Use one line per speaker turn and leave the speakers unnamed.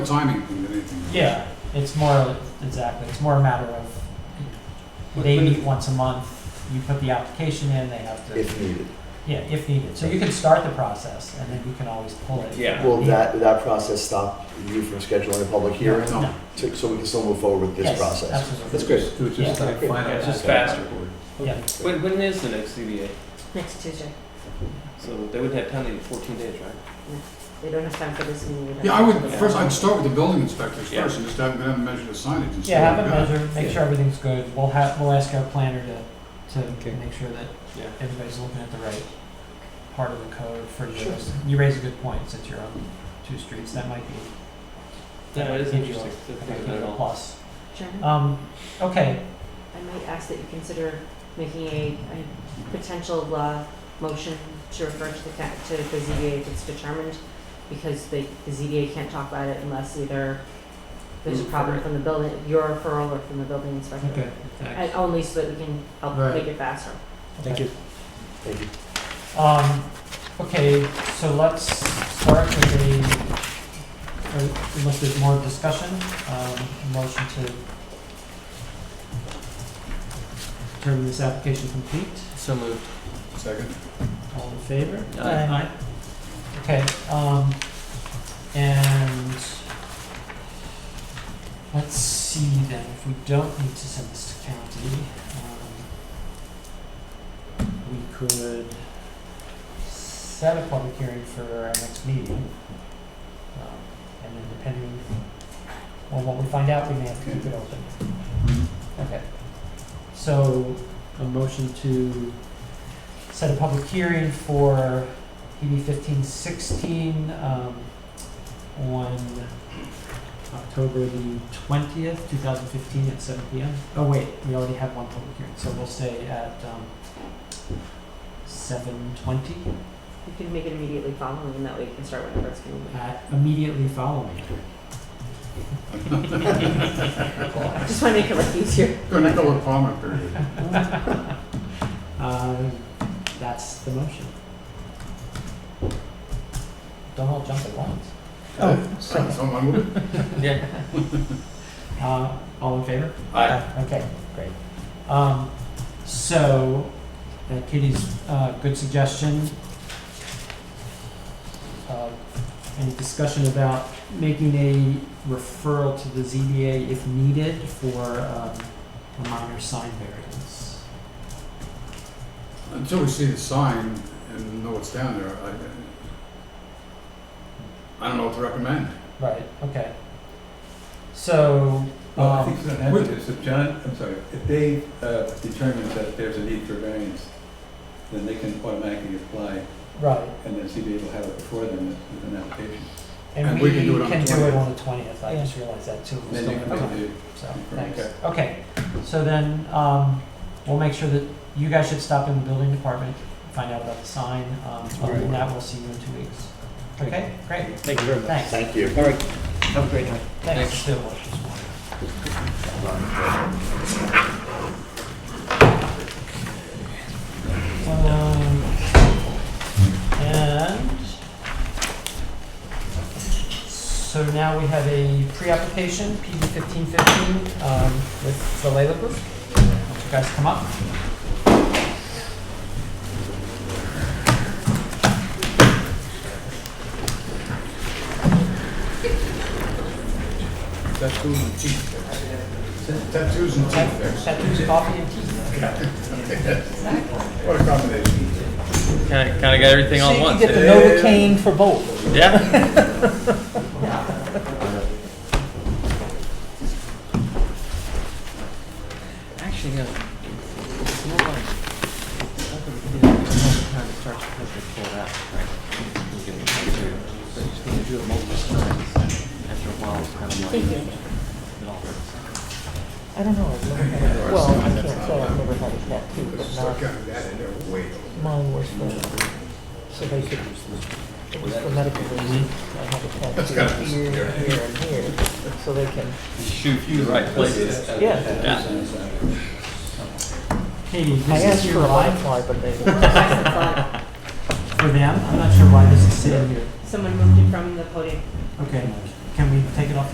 timing thing than anything. else.
Yeah, it's more, exactly, it's more a matter of,
But-
they
but
meet
if-
once a month, you put the application in, they have to,
if needed.
yeah, if needed. So you can start the process, and then you can always pull it.
Yeah.
Will that, that process stop you from scheduling a public hearing?
No.
No.
To- So we can still move forward with this
Yes,
process?
Absolutely.
That's great.
It was just
Yeah.
like final.
Yeah, it's just
aspect.
faster.
Yeah.
When, when is the next CBA?
Next Tuesday.
So they wouldn't have time to get 14 days, right?
They don't have time for this meeting. We don't
Yeah, I would,
Yeah.
first, I'd start with the building inspectors
Yeah.
first, and just have them measure the signage and see.
Yeah, have
what
it
we've got.
measured, make sure everything's good. We'll have, we'll ask our planner to,
Okay.
to make sure that
Yeah.
everybody's looking at the right part of the code for yours. You raise a good point, since you're on two streets, that might be. that
Yeah,
might
it is
give you a-
interesting to
that
think
might give
about
you a
it.
plus.
Chairman,
Um, okay,
I might ask that you consider making a, a potential, uh, motion to refer to the, ca- to the ZBA if it's determined, because the, the ZBA can't talk about it unless either there's a
Mm,
problem
right.
from the building, your referral or from the building inspector.
okay.
And only so that we can help
Right.
make it faster.
okay.
you.
Thank you.
Um, okay, so let's start with a, a little bit more discussion, um, motion to determine this application complete,
So moved.
Second,
all in favor?
Aye.
Okay, um, and let's see then, if we don't need to send this to county, um, we could set a public hearing for our next meeting. Um, and then depending on what we find out, we may have to keep it open. Okay, so a motion to set a public hearing for PB fifteen sixteen, um, on October the twentieth, two thousand fifteen at seven P M. Oh, wait, we already have one public hearing, so we'll say at, um, seven twenty,
You can make it immediately following, and that way you can start whenever it's convenient.
at immediately following.
I just wanna make it look easier.
go Nicola Palmer period.
Um, that's the motion. Don't all jump at once.
Oh. Someone would.
Uh, all in favor?
Aye.
Okay, great. Um, so, uh, Katie's, uh, good suggestion. Uh, Any discussion about making a referral to the ZBA if needed for, um, a minor sign variance?
Until we see the sign and know what's down there, I, I don't know what to recommend.
Right, okay. So,
Well, I
um,
think that happens is if John, I'm sorry, if Dave uh, determines that there's a need for variance, then they can automatically apply,
right,
and then CBA will have it before them as with an application.
and
And
we
we
can do it
on the
on the twentieth, I
Yeah.
just realized that too.
And Then you
Okay.
can do,
So,
Okay.
thanks. Okay, so then, um, we'll make sure that you guys should stop in the building department, find out about the sign. Um, other than that, we'll see you in two weeks. Okay, great,
Thank you very much.
thanks.
Thank you.
Have a great night.
Thanks.
Thanks.
Still. Um, and so now we have a pre-application, PB fifteen fifteen, um, with the Layla Group. Won't you guys come up?
Tattoos and teeth. Tattoos and teeth fix.
Tattoos, coffee, and tea.
What a combination.
Kind of, kind of got everything all at once.
the Novocaine for both.
Yeah. Actually, no. It's more like- I think we can do it another time. It starts to hit the full out, right? We can do it. But you just need to do it multiple times. After a while, it's kind of like.
Thank you.
It all hurts.
I don't know, well, I can't say I've never had a tattoo,
It's stuck out of that in there way over.
Mine was for, so they could, it was for medical reasons. I have a
That's kind
tattoo
of
here, here, and here, so they can,
Shoot you the right places.
yeah.
Yeah.
Katie,
I
this
asked
is
for
your
a
line
butterfly, but they.
for them? I'm not sure why this is sitting here.
Someone moved it from the podium.
Okay. Can we take it off the